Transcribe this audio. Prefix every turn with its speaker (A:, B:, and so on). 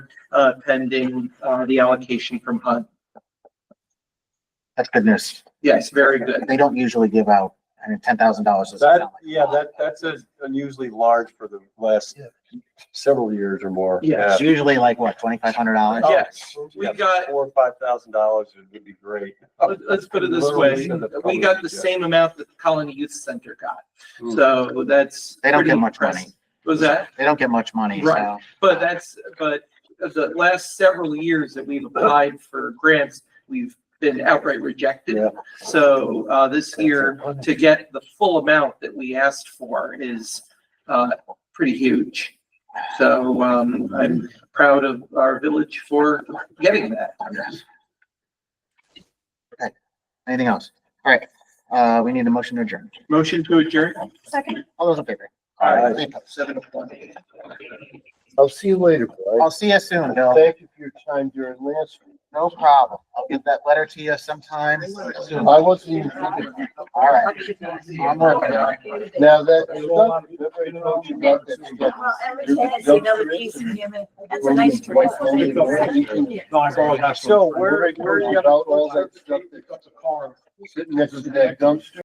A: uh, pending, uh, the allocation from HUD.
B: That's good news.
A: Yes, very good.
B: They don't usually give out, I mean, ten thousand dollars.
C: That, yeah, that, that's a- unusually large for the last several years or more.
A: Yes.
B: It's usually like, what, twenty-five hundred dollars?
C: Oh,
A: Yes, we
C: Yeah,
A: got-
C: Four, or five thousand dollars would be great.
A: Let- Let's put it this way. We got the same amount that the Colony Youth Center got. So that's.
B: They don't
A: pretty
B: get much money.
A: impressive. Was that?
B: They don't get much money,
A: Right.
B: so.
A: But that's, but the last several years that we've applied for grants, we've been outright rejected.
C: Yeah.
A: So, uh, this year, to get the full amount that we asked for is, uh, pretty huge. So, um, I'm proud of our village for getting that.
B: Anything else? All right, uh, we need a motion to adjourn.
A: Motion to adjourn,
D: Second.
B: All those in favor?
C: Aye.
B: Any opposed?
A: seven twenty.
C: I'll see you later, Blake.
B: I'll see you soon, Bill.
C: Thank you for your time during last week.
B: No problem. I'll get that letter to you sometime soon.
C: I wasn't even thinking.
B: All right. I'm working on it.
C: Now that. That's
D: Well, every day I see another piece of him, and that's a nice dress.
C: So where, where you got all that stuff that sitting next to that dumpster?